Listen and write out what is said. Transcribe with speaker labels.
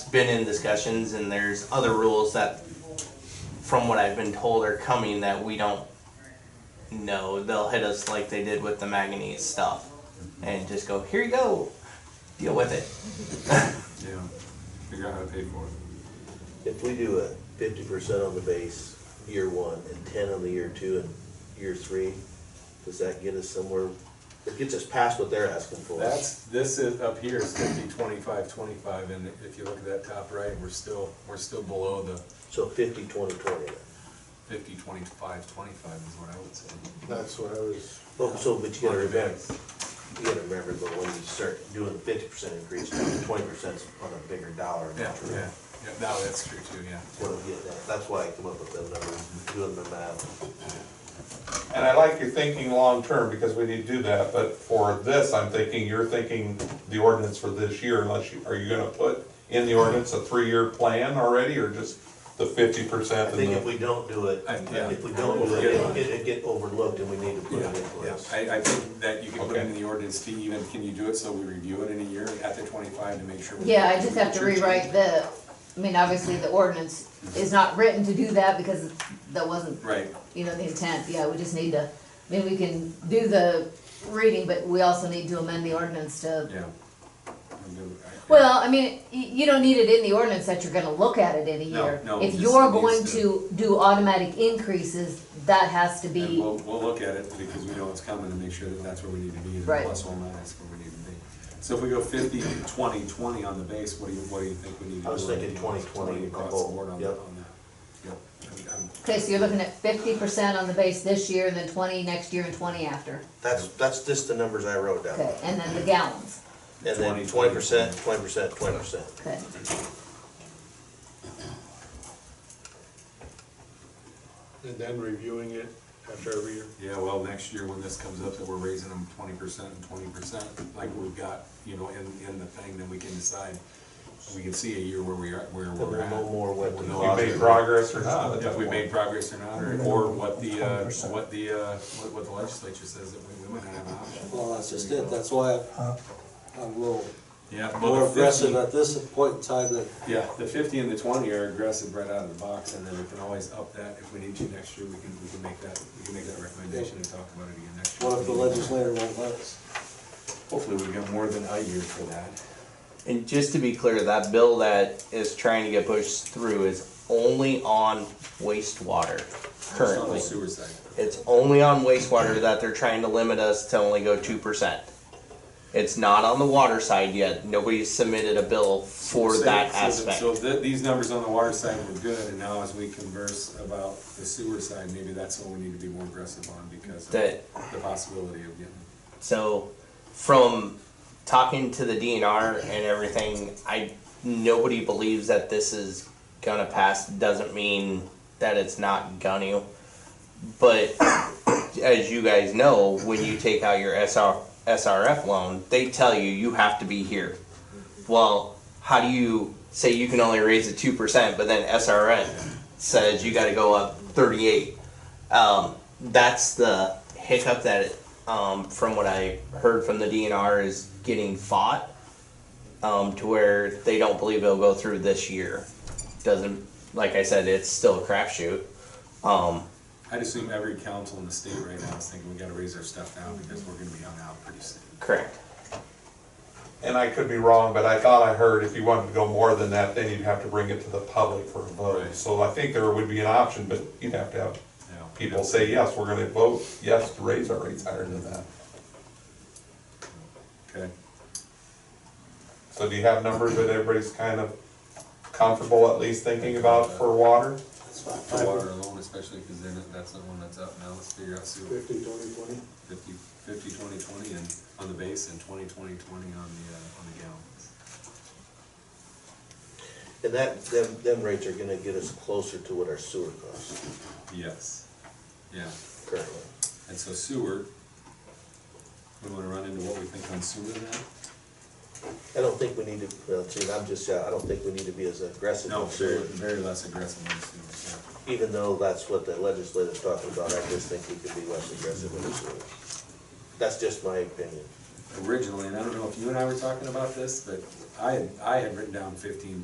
Speaker 1: been in discussions and there's other rules that, from what I've been told, are coming that we don't know. They'll hit us like they did with the manganese stuff and just go, here you go, deal with it.
Speaker 2: Yeah, figure out how to pay for it.
Speaker 3: If we do a fifty percent on the base year one and ten on the year two and year three, does that get us somewhere? It gets us past what they're asking for.
Speaker 2: That's, this is, up here is fifty, twenty-five, twenty-five, and if you look at that top right, we're still, we're still below the
Speaker 3: So fifty, twenty, twenty then.
Speaker 2: fifty, twenty-five, twenty-five is what I would say.
Speaker 4: That's what I was,
Speaker 3: Well, so, but you gotta
Speaker 2: On the
Speaker 3: remember,
Speaker 2: base.
Speaker 3: you gotta remember, but when you start doing the fifty percent increase, twenty percent's on a bigger dollar. amount,
Speaker 2: Yeah,
Speaker 3: right?
Speaker 2: yeah, yeah, no, that's true too, yeah.
Speaker 3: That's what I'm getting at. That's why I come up with that number, doing the math.
Speaker 5: And I like your thinking long-term, because we need to do that, but for this, I'm thinking, you're thinking the ordinance for this year, unless you, are you gonna put in the ordinance a three-year plan already, or just the fifty
Speaker 3: I
Speaker 5: percent?
Speaker 3: think if we don't do it,
Speaker 2: I- yeah.
Speaker 3: if we don't do it, it, it get overlooked and we need to put it
Speaker 2: Yeah,
Speaker 3: in for
Speaker 2: yeah,
Speaker 3: us.
Speaker 2: I, I think that you can put in
Speaker 5: Okay.
Speaker 2: the ordinance to even, can you do it so we review it in a year at the twenty-five to make sure? we-
Speaker 6: Yeah, I just have to rewrite the, I mean, obviously the ordinance is not written to do that because that wasn't,
Speaker 2: Right,
Speaker 6: you know, the intent. Yeah, we just need to, I mean, we can do the reading, but we also need to amend the ordinance to,
Speaker 2: yeah. I'm good with that.
Speaker 6: well, I mean, you, you don't need it in the ordinance that you're gonna look at it in a
Speaker 2: No,
Speaker 6: year.
Speaker 2: no,
Speaker 6: If
Speaker 2: just
Speaker 6: you're
Speaker 2: needs
Speaker 6: going
Speaker 2: to-
Speaker 6: to do automatic increases, that has to
Speaker 2: And
Speaker 6: be,
Speaker 2: we'll, we'll look at it because we know it's coming to make sure that that's where we need to be, and
Speaker 6: Right.
Speaker 2: plus or minus where we need to be. So if we go 50, 20, 20 on the base, what do you, what do you think we need to do?
Speaker 3: I was thinking 20, 20
Speaker 2: Across
Speaker 3: on
Speaker 2: the
Speaker 3: both,
Speaker 2: board on the,
Speaker 3: yep.
Speaker 2: on that. Yep. I'm- I'm-
Speaker 6: okay, so you're looking at fifty percent on the base this year, and then twenty next year and twenty after.
Speaker 3: That's, that's just the numbers I wrote down.
Speaker 6: Okay, and then the gallons,
Speaker 3: And then
Speaker 2: 20,
Speaker 3: twenty percent, twenty percent, twenty percent.
Speaker 6: okay.
Speaker 4: and then reviewing it after every year.
Speaker 2: Yeah, well, next year when this comes up, that we're raising them twenty percent and twenty percent, like we've got, you know, in, in the thing, then we can decide. We can see a year where we are, where
Speaker 3: Then
Speaker 2: we're
Speaker 3: we'll
Speaker 2: at.
Speaker 3: know more what
Speaker 2: We'll
Speaker 3: to
Speaker 2: know
Speaker 3: do.
Speaker 5: You made progress or not? at
Speaker 2: If
Speaker 5: that
Speaker 2: we
Speaker 5: point.
Speaker 2: made progress or not, or, or what the, uh, what the, uh, what what the legislature says that we, we might not have an option.
Speaker 7: Well, that's just it, that's why I'm a little
Speaker 2: Yeah.
Speaker 7: more aggressive uh, at this point in time than
Speaker 2: Yeah, the fifty and the twenty are aggressive right out of the box, and then we can always up that if we need to next year, we can, we can make that, we can make that recommendation and talk about it again next year.
Speaker 7: what if the legislator won't let us.
Speaker 2: Hopefully, we've got more than a year for that.
Speaker 1: And just to be clear, that bill that is trying to get pushed through is only on wastewater
Speaker 2: Just on the
Speaker 1: currently.
Speaker 2: sewer side.
Speaker 1: It's only on wastewater that they're trying to limit us to only go two percent. It's not on the water side yet. Nobody's submitted a bill for
Speaker 2: So-
Speaker 1: that
Speaker 2: so the-
Speaker 1: aspect.
Speaker 2: So th these numbers on the water side were good, and now as we converse about the sewer side, maybe that's what we need to be more aggressive on because of
Speaker 1: That-
Speaker 2: the possibility of getting.
Speaker 1: So from talking to the DNR and everything, I nobody believes that this is gonna pass. Doesn't mean that it's not gonna. But as you guys know, when you take out your SR, SRF loan, they tell you you have to be here. Well, how do you say you can only raise it two percent, but then SRN says you got to go up thirty-eight? Um, that's the hiccup that, it, um, from what I heard from the DNR, is getting fought um, to where they don't believe it'll go through this year. Doesn't like I said, it's still a crapshoot. Um,
Speaker 2: I'd assume every council in the state right now is thinking we gotta raise our stuff now because we're gonna be hung out pretty soon.
Speaker 1: correct.
Speaker 5: And I could be wrong, but I thought I heard if you wanted to go more than that, then you'd have to bring it to the public for a vote.
Speaker 2: Right.
Speaker 5: So I think there would be an option, but you'd have to have
Speaker 2: you know.
Speaker 5: people say, yes, we're gonna vote yes to raise our rates higher than that.
Speaker 2: Okay.
Speaker 5: So do you have numbers that everybody's kind of comfortable at least thinking about for water?
Speaker 7: That's fine.
Speaker 2: For water alone especially, because then that's the one that's up now, let's figure out sewer,
Speaker 4: Fifty, twenty, twenty?
Speaker 2: fifty, fifty, twenty, twenty, and on the base, and twenty, twenty, twenty on the, uh, on the gallons.
Speaker 3: And that, them, them rates are gonna get us closer to what our sewer costs
Speaker 2: Yes. Yeah,
Speaker 3: currently.
Speaker 2: and so sewer, we wanna run into what we think on sewer now?
Speaker 3: I don't think we need to, well, see, and I'm just, uh, I don't think we need to be as aggressive
Speaker 2: No,
Speaker 3: on
Speaker 2: very,
Speaker 3: sewer.
Speaker 2: very less aggressive on sewer, yeah.
Speaker 3: Even though that's what the legislature's talking about, I just think we could be less aggressive on sewer. That's just my opinion.
Speaker 2: originally, and I don't know if you and I were talking about this, but I, had- I had written down fifteen